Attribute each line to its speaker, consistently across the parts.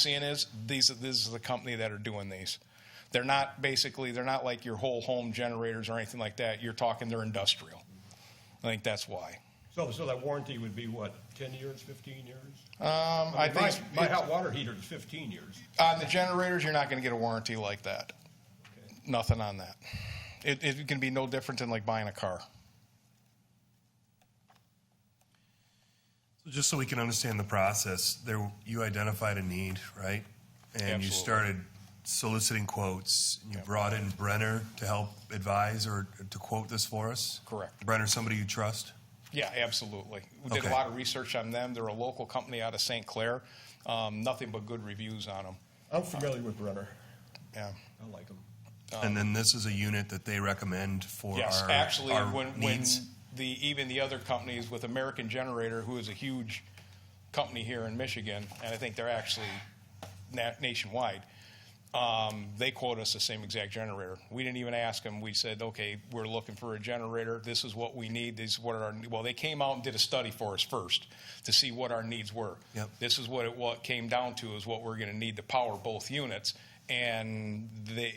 Speaker 1: seeing is these this is the company that are doing these. They're not basically they're not like your whole home generators or anything like that. You're talking they're industrial. I think that's why.
Speaker 2: So, so that warranty would be what, ten years, fifteen years?
Speaker 1: Um, I
Speaker 2: mean, my-
Speaker 1: think
Speaker 2: My hot water heater is fifteen years.
Speaker 1: on the generators you're not going to get a warranty like that. Nothing on that. It, it can be no different than like buying a car.
Speaker 3: Just so we can understand the process, there, you identified a need, right? And
Speaker 1: Absolutely.
Speaker 3: you started soliciting quotes, and you brought in Brenner to help advise or to quote this for us?
Speaker 1: Correct.
Speaker 3: Brenner, somebody you trust?
Speaker 1: Yeah, absolutely. We did a
Speaker 3: Okay.
Speaker 1: lot of research on them. They're a local company out of St. Clair. Um, nothing but good reviews on them.
Speaker 2: I'm familiar with Brenner.
Speaker 1: Yeah.
Speaker 2: I like them.
Speaker 3: And then this is a unit that they recommend for
Speaker 1: Um, Yes,
Speaker 3: our,
Speaker 1: actually,
Speaker 3: our
Speaker 1: when, when
Speaker 3: needs?
Speaker 1: the, even the other companies with American Generator, who is a huge company here in Michigan, and I think they're actually na- nationwide, um, they quote us the same exact generator. We didn't even ask them. We said, okay, we're looking for a generator. This is what we need. These what are our, well, they came out and did a study for us first to see what our needs were.
Speaker 3: Yep.
Speaker 1: This is what it, what came down to is what we're going to need to power both units. And they,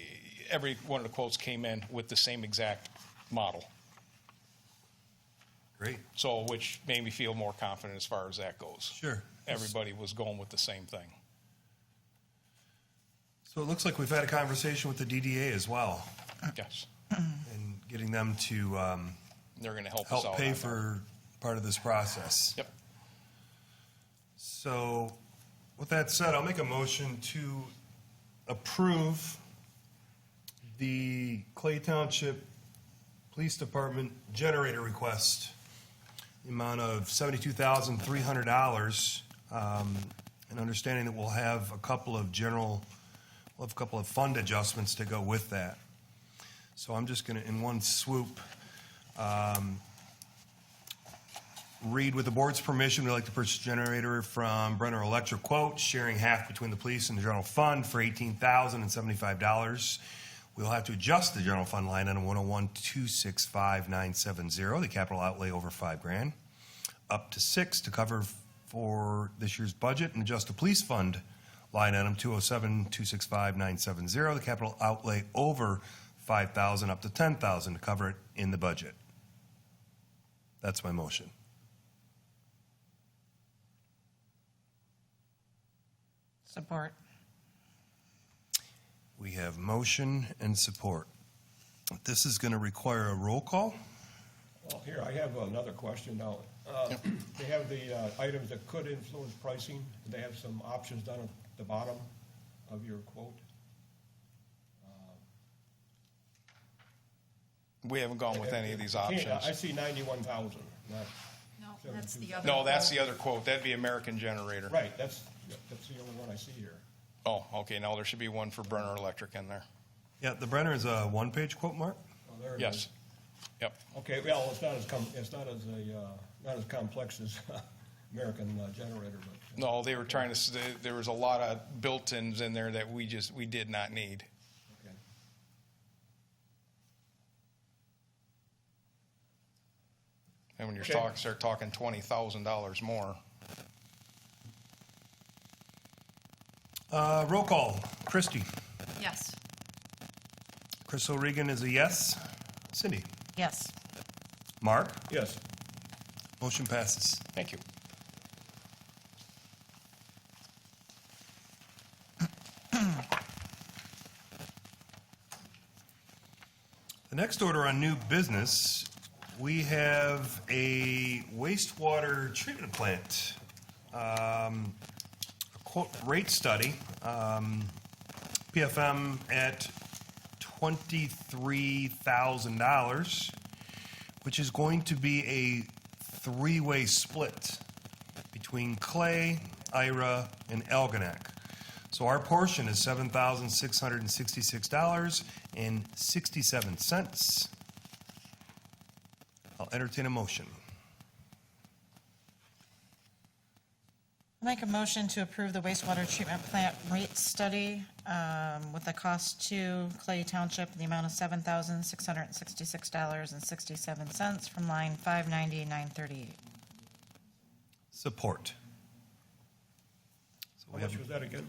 Speaker 1: every one of the quotes came in with the same exact model.
Speaker 3: Great,
Speaker 1: So, which made me feel more confident as far as that goes.
Speaker 3: sure.
Speaker 1: Everybody was going with the same thing.
Speaker 3: So it looks like we've had a conversation with the DDA as well,
Speaker 1: Yes.
Speaker 3: and getting them to um,
Speaker 1: They're going to help, us
Speaker 3: help
Speaker 1: out.
Speaker 3: pay
Speaker 1: on that.
Speaker 3: for part of this process.
Speaker 1: Yep.
Speaker 3: So, with that said, I'll make a motion to approve the Clay Township Police Department generator request, the amount of seventy-two thousand three hundred dollars, um, and understanding that we'll have a couple of general, we'll have a couple of fund adjustments to go with that. So I'm just gonna, in one swoop, Read, with the board's permission, we'd like to purchase a generator from Brenner Electric Quote, sharing half between the police and the general fund for eighteen thousand and seventy-five dollars. We'll have to adjust the general fund line item one oh one two six five nine seven zero, the capital outlay over five grand, up to six to cover for this year's budget and adjust the police fund line item two oh seven two six five nine seven zero, the capital outlay over five thousand up to ten thousand to cover it in the budget. That's my motion.
Speaker 4: Support.
Speaker 3: We have motion and support. This is going to require a roll call.
Speaker 2: Well, here, I have another question now. Uh, They have the uh, items that could influence pricing, they have some options down at the bottom of your quote.
Speaker 1: We haven't gone with any of these options.
Speaker 2: I see ninety-one thousand, not,
Speaker 5: No, that's the other.
Speaker 1: No, that's the other quote. That'd be American Generator.
Speaker 2: right, that's, that's the only one I see here.
Speaker 1: Oh, okay, now there should be one for Brenner Electric in there.
Speaker 3: Yeah, the Brenner is a one-page quote, Mark?
Speaker 2: Oh, there it
Speaker 1: Yes.
Speaker 2: is.
Speaker 1: Yep,
Speaker 2: Okay, well, it's not as com, it's not as a, uh, not as complex as American uh, generator, but.
Speaker 1: no, they were trying to, s- there- there was a lot of built-ins in there that we just, we did not need.
Speaker 2: okay.
Speaker 1: And when you're
Speaker 2: Okay.
Speaker 1: talking, start talking twenty thousand dollars more.
Speaker 3: Uh, Roll call. Christie.
Speaker 5: Yes,
Speaker 3: Chris O'Regan is a yes. Cindy.
Speaker 4: Yes.
Speaker 3: Mark?
Speaker 2: Yes,
Speaker 3: Motion passes.
Speaker 1: Thank you.
Speaker 3: The next order on new business, we have a wastewater treatment plant. um, a Quote rate study, um, PFM at $23,000, which is going to be a three-way split between Clay, Ira, and Algonac. So our portion is seven thousand six hundred and sixty-six dollars and sixty-seven cents. I'll entertain a motion.
Speaker 4: Make a motion to approve the wastewater treatment plant rate study um, with the cost to Clay Township in the amount of $7,666.67 from line 590-938.
Speaker 3: Support. So
Speaker 2: how
Speaker 3: we
Speaker 2: much
Speaker 3: have
Speaker 2: was that again?